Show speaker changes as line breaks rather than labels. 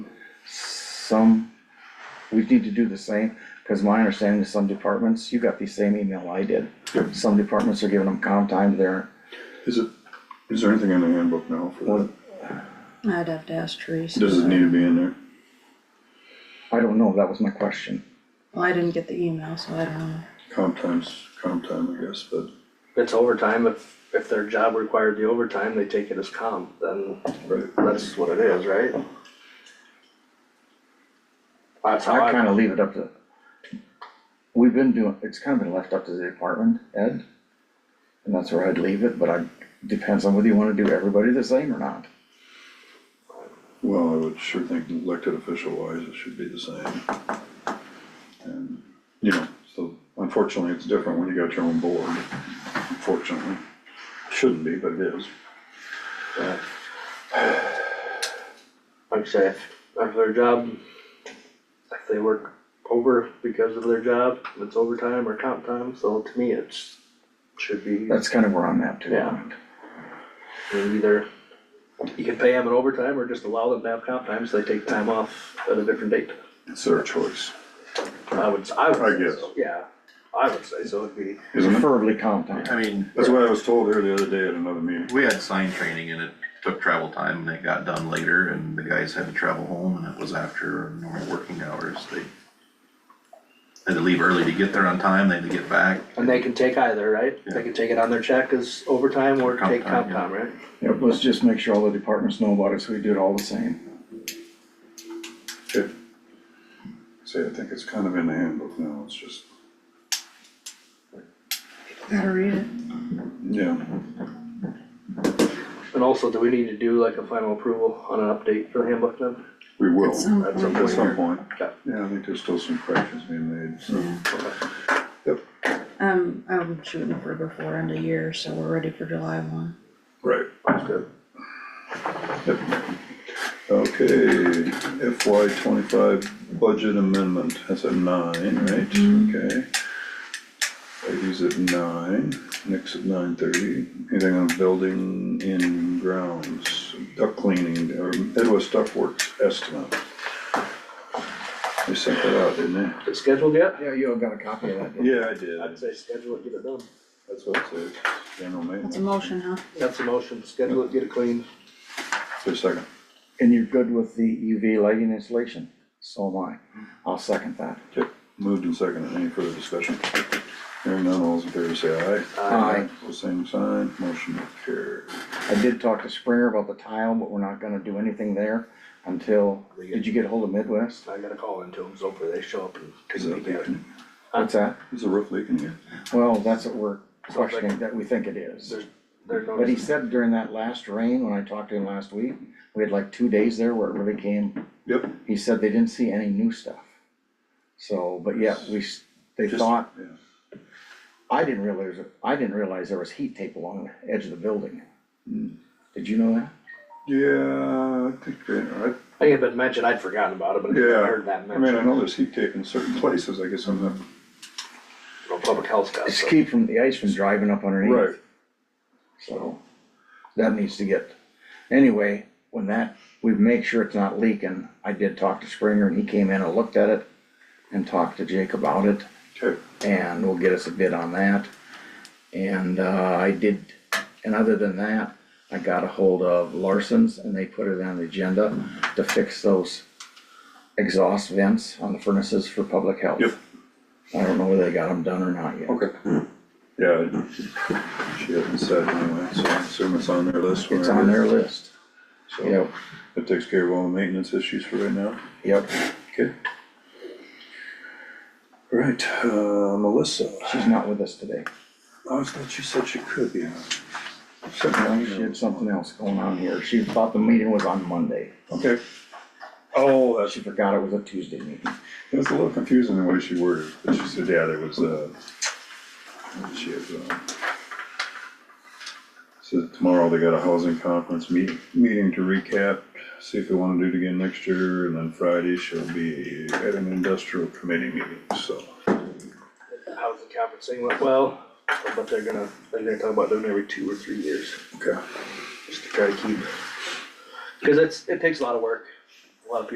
some, we need to do the same, because my understanding is some departments, you got the same email I did.
Yep.
Some departments are giving them comp time there,
Is it, is there anything in the handbook now for
Well,
that?
I'd have to ask Teresa.
Does it need to be in there?
I don't know, that was my question.
Well, I didn't get the email, so I don't know.
Comp times, comp time, I guess, but
It's overtime, if, if their job required the overtime, they take it as comp, then that's what it is, right? That's how
I
I,
kinda leave it up to, we've been doing, it's kinda been left up to the department, Ed. And that's where I'd leave it, but I, depends on whether you wanna do everybody the same or not.
Well, I would sure think elected official wise, it should be the same. And, you know, so unfortunately, it's different when you got your own board, unfortunately. Shouldn't be, but it is.
like I say, if, if their job, if they work over because of their job, it's overtime or comp time, so to me, it's, should be
That's kinda where I'm at too.
Yeah. I mean, either you can pay them in overtime or just allow them to have comp time, so they take time off at a different date.
It's their choice,
I would, I
I
would
guess.
say so, yeah, I would say so, it'd be.
isn't it?
Preferably comp time.
I mean,
That's what I was told here the other day at another meeting.
we had sign training and it took travel time and it got done later and the guys had to travel home and it was after normal working hours. They had to leave early to get there on time, they had to get back.
And they can take either, right? They can take it on their check as overtime or
Comp
take
time,
comp
yeah.
time, right?
Yep, let's just make sure all the departments know about it, so we do it all the same.
Good. See, I think it's kind of in the handbook now, it's just,
Gotta read it.
yeah,
And also, do we need to do like a final approval on an update for the handbook then?
we will.
At some
At
point.
At some point.
Okay.
Yeah, I think there's still some corrections being made, so.
Um, I'm shooting for before end of year, so we're ready for July one.
Right.
That's good.
Okay, FY twenty-five budget amendment, that's at nine, right?
Mm-hmm.
Okay. Ladies at nine, Nick's at nine thirty, anything on building in grounds, duck cleaning, or Edwest Duck Works estimate. They sent that out, didn't they?
Is it scheduled yet?
Yeah, you all got a copy of that, didn't you?
Yeah, I did.
I'd say schedule it, get it done.
That's what it says, general
That's
maintenance.
a motion, huh?
That's a motion, schedule it, get it clean.
Wait a second,
And you're good with the UV lighting installation? So am I. I'll second that.
okay, moved and seconded, any further discussion? Hearing none, all's in favor, say aye.
Aye.
Pose same sign, motion will carry.
I did talk to Springer about the tile, but we're not gonna do anything there until, did you get hold of Midwest?
I gotta call into them, so hopefully they show up and
Is
take
that
me down.
leaking?
What's that?
Is the roof leaking here?
Well, that's what we're questioning, that we think it is.
They're
But he
noticing,
said during that last rain, when I talked to him last week, we had like two days there where it really came,
Yep.
he said they didn't see any new stuff. So, but yeah, we, s- they
Just-
thought
Yeah,
I didn't realize, I didn't realize there was heat tape along the edge of the building. Did you know that?
Yeah, I think, uh,
I think it had been mentioned, I'd forgotten about it, but I
I,
heard
yeah,
that
I mean, I
mentioned.
know there's heat tape in certain places, I guess I'm not.
No public health stuff,
It's
so.
to keep from, the ice from driving up underneath, so that needs to get, anyway, when that, we make sure it's not leaking. I did talk to Springer and he came in and looked at it and talked to Jake about it
Okay,
and will get us a bid on that. And, uh, I did, and other than that, I got a hold of Larson's and they put it on the agenda to fix those exhaust vents on the furnaces for public health.
Yep.
I don't know whether they got them done or not yet.
okay. Yeah, she hasn't said anyway, so I assume it's on their list.
It's
whenever
on
it
their
is.
list.
So
Yep,
that takes care of all the maintenance issues for right now.
yep.
Okay. All right, uh, Melissa,
She's not with us today.
Oh, I was thought you said she could be on.
She had something else going on here. She thought the meeting was on Monday.
Okay. Oh, that's
She forgot it was a Tuesday meeting.
It was a little confusing the way she worded, it, but she said, yeah, there was, uh, she had, uh, said tomorrow they got a housing conference meeting, meeting to recap, see if they wanna do it again next year, and then Friday she'll be at an industrial committee meeting, so.
How's the conference thing went well, but they're gonna, they're gonna talk about doing it every two or three years,
Okay.
just to try to keep. Cause it's, it takes a lot of work,